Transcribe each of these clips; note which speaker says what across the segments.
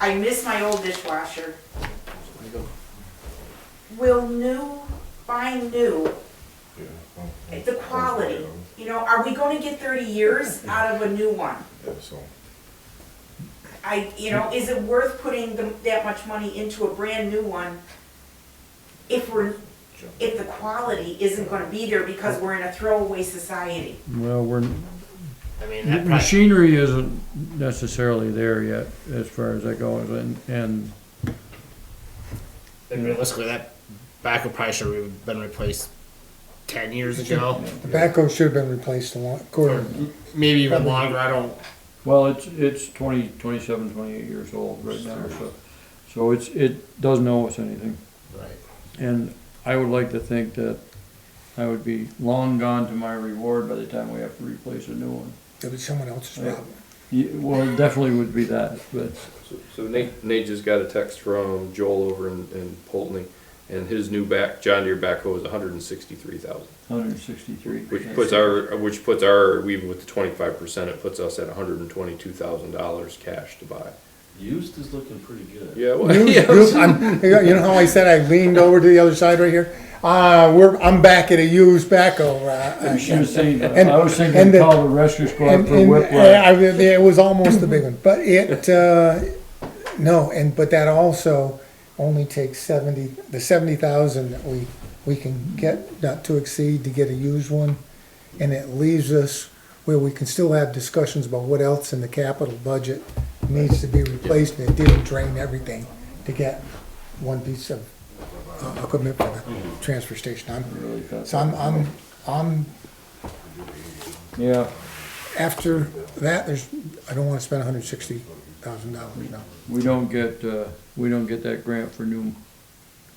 Speaker 1: I miss my old dishwasher.
Speaker 2: There you go.
Speaker 1: Will new, buy new,
Speaker 3: Yeah.
Speaker 1: the quality, you know, are we gonna get thirty years out of a new one?
Speaker 3: Yeah, so,
Speaker 1: I, you know, is it worth putting the, that much money into a brand new one? If we're, if the quality isn't gonna be there because we're in a throwaway society?
Speaker 4: Well, we're,
Speaker 2: I mean, that price,
Speaker 4: machinery isn't necessarily there yet, as far as that goes, and, and,
Speaker 2: and realistically, that backer price would have been replaced ten years ago,
Speaker 5: The backhoe should have been replaced a lot, quarter,
Speaker 2: maybe even longer. I don't.
Speaker 4: well, it's, it's twenty, twenty-seven, twenty-eight years old right now, so. So it's, it doesn't owe us anything,
Speaker 2: Right.
Speaker 4: and I would like to think that I would be long gone to my reward by the time we have to replace a new one.
Speaker 5: it'll be someone else's
Speaker 4: Yeah.
Speaker 5: problem.
Speaker 4: Yeah, well, it definitely would be that, but,
Speaker 6: So- So Nate, Nate just got a text from Joel over in, in Polteny, and his new back, John Deere backhoe is hundred and sixty-three thousand.
Speaker 4: hundred and sixty-three.
Speaker 6: Which puts our, which puts our, even with the twenty-five percent, it puts us at hundred and twenty-two thousand dollars cash to buy.
Speaker 7: Used is looking pretty good.
Speaker 6: Yeah, well,
Speaker 5: You you- I'm- you know you know how I said I leaned over to the other side right here? Uh, we're, I'm back at a used backhoe. uh,
Speaker 4: She was saying,
Speaker 5: And-
Speaker 4: I was
Speaker 5: and
Speaker 4: thinking
Speaker 5: the-
Speaker 4: call the rescue squad
Speaker 5: And,
Speaker 4: for
Speaker 5: and uh,
Speaker 4: whiplash.
Speaker 5: I, I, it was almost a big one, but it, uh, no, and, but that also only takes seventy, the seventy thousand that we, we can get, not to exceed, to get a used one. And it leaves us where we can still have discussions about what else in the capital budget needs to be replaced, and it didn't drain everything to get one piece of uh, equipment for the transfer station. I'm,
Speaker 4: Really felt
Speaker 5: so I'm, I'm, I'm
Speaker 4: Yeah,
Speaker 5: after that, there's, I don't wanna spend hundred sixty thousand dollars now.
Speaker 4: we don't get, uh, we don't get that grant for new,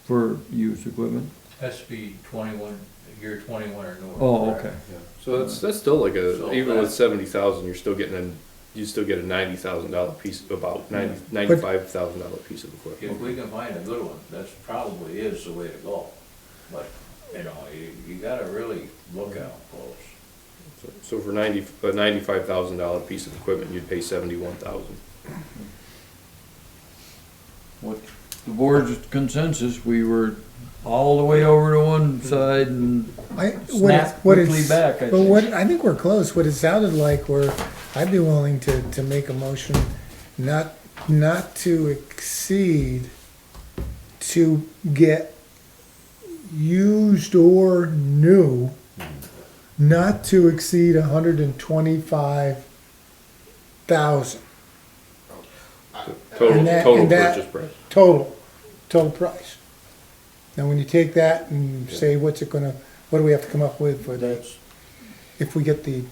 Speaker 4: for used equipment.
Speaker 8: Has to be twenty-one, year twenty-one or newer.
Speaker 4: Oh, okay.
Speaker 6: so that's, that's still like a,
Speaker 8: So
Speaker 6: even with
Speaker 8: that-
Speaker 6: seventy thousand, you're still getting a, you still get a ninety thousand dollar piece, about ninety, ninety-five thousand dollar piece of
Speaker 8: If
Speaker 6: equipment.
Speaker 8: we can find a good one, that's probably is the way to go. But, you know, you, you gotta really look out close.
Speaker 6: So- So for ninety, a ninety-five thousand dollar piece of equipment, you'd pay seventy-one thousand.
Speaker 4: What, the board's consensus, we were all the way over to one side and
Speaker 5: I, what, it-
Speaker 4: snapped
Speaker 5: what
Speaker 4: quickly
Speaker 5: is,
Speaker 4: back, I
Speaker 5: but what,
Speaker 4: think.
Speaker 5: I think we're close, what it sounded like were, I'd be willing to, to make a motion not, not to exceed, to get used or new, not to exceed a hundred and twenty-five thousand
Speaker 6: Total,
Speaker 5: And that-
Speaker 6: total
Speaker 5: and that-
Speaker 6: purchase price.
Speaker 5: total, total price. Now, when you take that and say, what's it gonna, what do we have to come up with for that,
Speaker 4: That's,
Speaker 5: if we get the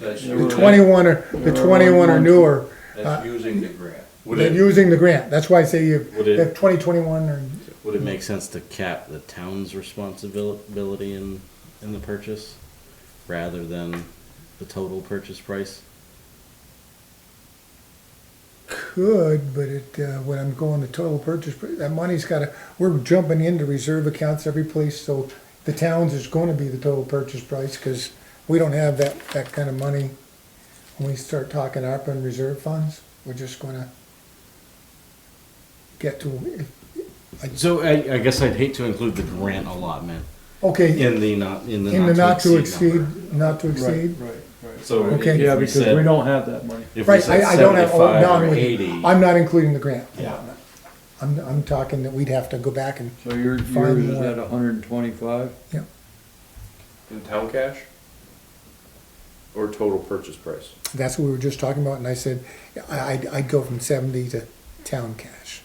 Speaker 8: That's,
Speaker 4: Yeah,
Speaker 5: the
Speaker 4: we're-
Speaker 5: twenty-one or, the
Speaker 4: We're
Speaker 5: twenty-one or
Speaker 4: on-
Speaker 5: newer,
Speaker 8: that's using the grant.
Speaker 7: Would
Speaker 5: than
Speaker 7: it,
Speaker 5: using the grant, that's why I say you,
Speaker 7: Would it-
Speaker 5: have twenty twenty-one or,
Speaker 7: would it make sense to cap the town's responsibility in, in the purchase rather than the total purchase price?
Speaker 5: could, but it, uh, when I'm going to total purchase, pr- that money's gotta, we're jumping into reserve accounts every place, so the towns is gonna be the total purchase price, cause we don't have that, that kind of money. When we start talking ARPA and reserve funds, we're just gonna get to,
Speaker 7: So I, I guess I'd hate to include the grant allotment
Speaker 5: okay,
Speaker 7: in the not, in the
Speaker 5: in the not to
Speaker 7: number.
Speaker 5: exceed, not to
Speaker 4: right,
Speaker 5: exceed.
Speaker 4: right, right.
Speaker 7: So if
Speaker 5: Okay.
Speaker 7: we
Speaker 4: Yeah, because
Speaker 7: said-
Speaker 4: we don't have that money.
Speaker 7: If we
Speaker 5: Right,
Speaker 7: said
Speaker 5: I, I don't have, oh, no,
Speaker 7: seventy-five
Speaker 5: I'm
Speaker 7: or
Speaker 5: with
Speaker 7: eighty.
Speaker 5: you. I'm not including the grant.
Speaker 7: Yeah.
Speaker 5: I'm, I'm talking that we'd have to go back and,
Speaker 4: So your,
Speaker 5: Find
Speaker 4: yours is
Speaker 5: more.
Speaker 4: at hundred and twenty-five?
Speaker 6: In town cash? Or total purchase price?
Speaker 5: that's what we were just talking about, and I said, I, I'd, I'd go from seventy to town cash.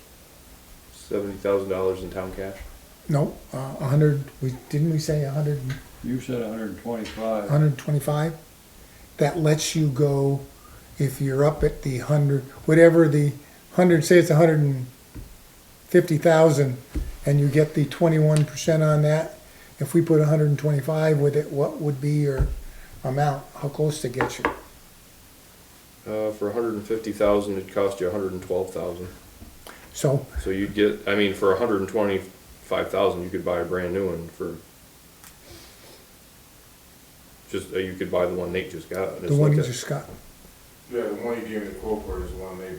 Speaker 6: Seventy thousand dollars in town cash?
Speaker 5: No, uh, a hundred, we, didn't we say a hundred,
Speaker 4: You said hundred and
Speaker 5: a
Speaker 4: twenty-five.
Speaker 5: hundred and twenty-five? That lets you go, if you're up at the hundred, whatever the hundred, say it's a hundred and fifty thousand, and you get the twenty-one percent on that, if we put a hundred and twenty-five with it, what would be your amount? How close to get you?
Speaker 6: Uh, for a hundred and fifty thousand, it'd cost you a hundred and twelve thousand.
Speaker 5: So,
Speaker 6: So you'd get, I mean, for a hundred and twenty-five thousand, you could buy a brand new one for just, uh, you could buy the one Nate just got.
Speaker 5: the one you just got.
Speaker 3: E Yeah, the one you gave me the quote for is the one they